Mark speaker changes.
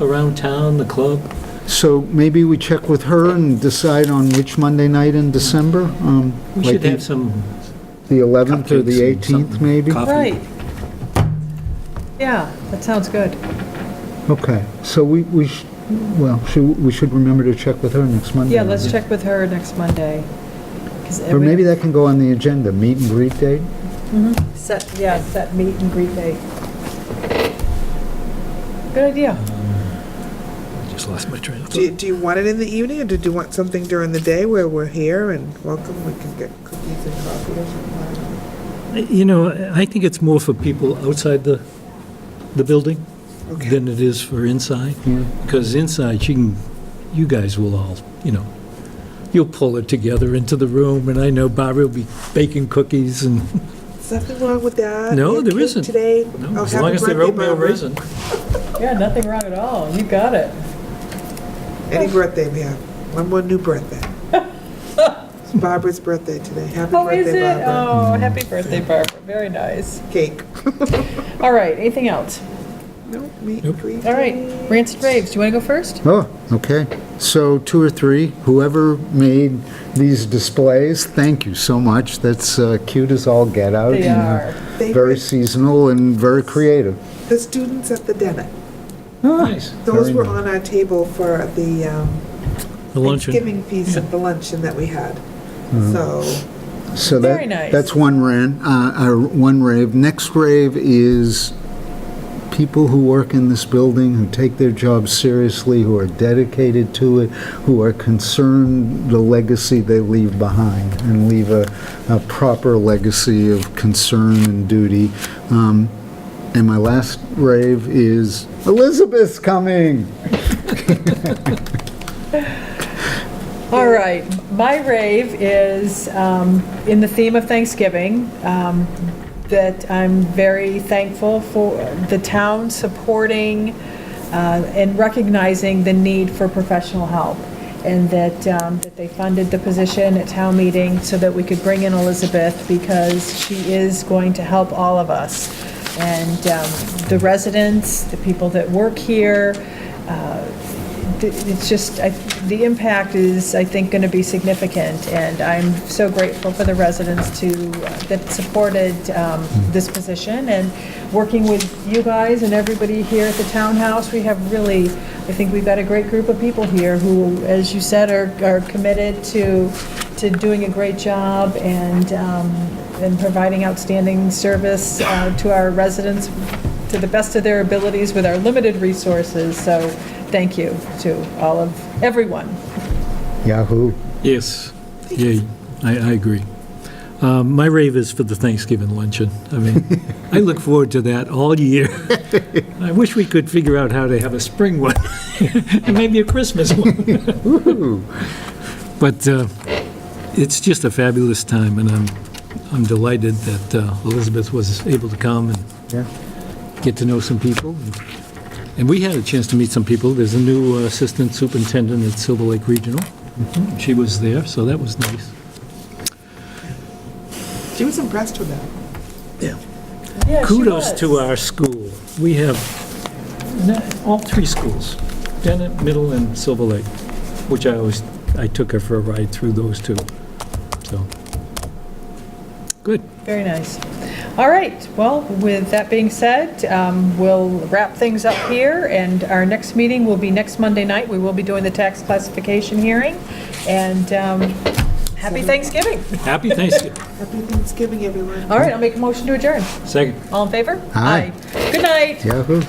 Speaker 1: around town, the club?
Speaker 2: So maybe we check with her and decide on which Monday night in December? um,
Speaker 1: We
Speaker 2: like
Speaker 1: should
Speaker 2: the-
Speaker 1: have some
Speaker 2: The 11th or the
Speaker 1: cupcakes and
Speaker 2: 18th,
Speaker 1: something.
Speaker 2: maybe?
Speaker 1: Coffee.
Speaker 3: Right. Yeah, that sounds good.
Speaker 2: Okay, so we, we, sh- well, should- we should remember to check with her next Monday.
Speaker 3: Yeah, let's check with her next Monday. 'cause
Speaker 2: Or
Speaker 3: we-
Speaker 2: maybe that can go on the agenda, meet and greet date?
Speaker 3: Set, yeah, set meet and greet day. Good idea.
Speaker 1: Just lost my train of
Speaker 4: Do you,
Speaker 1: thought.
Speaker 4: do you want it in the evening, or did you want something during the day where we're here and welcome, we can get cookies and coffee or something?
Speaker 1: You know, I think it's more for people outside the, the building
Speaker 4: Okay.
Speaker 1: than it is for inside.
Speaker 2: Yeah.
Speaker 1: Because inside, you can, you guys will all, you know, you'll pull it together into the room, and I know Barbara will be baking cookies and,
Speaker 4: Is nothing wrong with that?
Speaker 1: No,
Speaker 4: Have
Speaker 1: there
Speaker 4: cake
Speaker 1: isn't.
Speaker 4: Today? Oh,
Speaker 1: as
Speaker 4: happy
Speaker 1: long as they're
Speaker 4: birthday,
Speaker 1: oatmeal
Speaker 4: Barbara.
Speaker 1: raisin.
Speaker 3: Yeah, nothing wrong at all. You got it.
Speaker 4: Any birthday we have, one more new birthday. It's Barbara's birthday today, happy
Speaker 3: Oh, is
Speaker 4: birthday,
Speaker 3: it?
Speaker 4: Barbara.
Speaker 3: Oh, happy birthday, Barbara. Very nice.
Speaker 4: Cake.
Speaker 3: All right, anything else?
Speaker 4: No, meat,
Speaker 1: Nope.
Speaker 4: greet.
Speaker 3: All right, rants and raves. Do you want to go first?
Speaker 2: Oh, okay. So two or three, whoever made these displays, thank you so much. That's uh, cute as all get out.
Speaker 3: They
Speaker 2: and, uh,
Speaker 3: are.
Speaker 4: They
Speaker 2: Very
Speaker 4: were
Speaker 2: seasonal and very creative.
Speaker 4: The students at the dinner,
Speaker 1: Nice.
Speaker 4: those
Speaker 2: Very
Speaker 4: were
Speaker 2: nice.
Speaker 4: on our table for the um,
Speaker 1: The luncheon.
Speaker 4: Thanksgiving piece of the luncheon that we had.
Speaker 2: Mm-hmm.
Speaker 4: So,
Speaker 2: So
Speaker 3: Very
Speaker 2: that,
Speaker 3: nice.
Speaker 2: that's one rant, uh, uh, one rave. Next rave is people who work in this building, who take their job seriously, who are dedicated to it, who are concerned the legacy they leave behind and leave a, a proper legacy of concern and duty. Um, and my last rave is Elizabeth's coming.
Speaker 3: All right, my rave is, um, in the theme of Thanksgiving, um, that I'm very thankful for the town supporting uh, and recognizing the need for professional help, and that, um, that they funded the position at town meeting so that we could bring in Elizabeth, because she is going to help all of us. And um, the residents, the people that work here, uh, th- it's just, I- the impact is, I think, going to be significant, and I'm so grateful for the residents to, uh, that supported um, this position, and working with you guys and everybody here at the townhouse, we have really, I think we've got a great group of people here who, as you said, are are committed to, to doing a great job and, um, and providing outstanding service uh, to our residents to the best of their abilities with our limited resources, so thank you to all of, everyone.
Speaker 2: Yahoo.
Speaker 1: Yes, yeah, I, I agree. Um, My rave is for the Thanksgiving luncheon. I mean, I look forward to that all year. I wish we could figure out how to have a spring one, and maybe a Christmas one. But uh, it's just a fabulous time, and I'm, I'm delighted that uh, Elizabeth was able to come and
Speaker 2: Yeah.
Speaker 1: get to know some people. And we had a chance to meet some people. There's a new uh, assistant superintendent at Silver Lake Regional. She was there, so that was nice.
Speaker 4: she was impressed with that.
Speaker 1: Kudos to uh, our school. We have, no- all three schools, Bennett, Middle, and Silver Lake, which I always, I took her for a ride through those two, so. Good.
Speaker 3: Very nice. All right, well, with that being said, um, we'll wrap things up here, and our next meeting will be next Monday night. We will be doing the tax classification hearing, and um, happy Thanksgiving.
Speaker 1: Happy Thanksgiving.
Speaker 4: Happy Thanksgiving, everyone.
Speaker 3: All right, I'll make a motion to adjourn.
Speaker 1: Second.
Speaker 3: All in favor?
Speaker 2: Aye.
Speaker 3: Good night.
Speaker 2: Yahoo.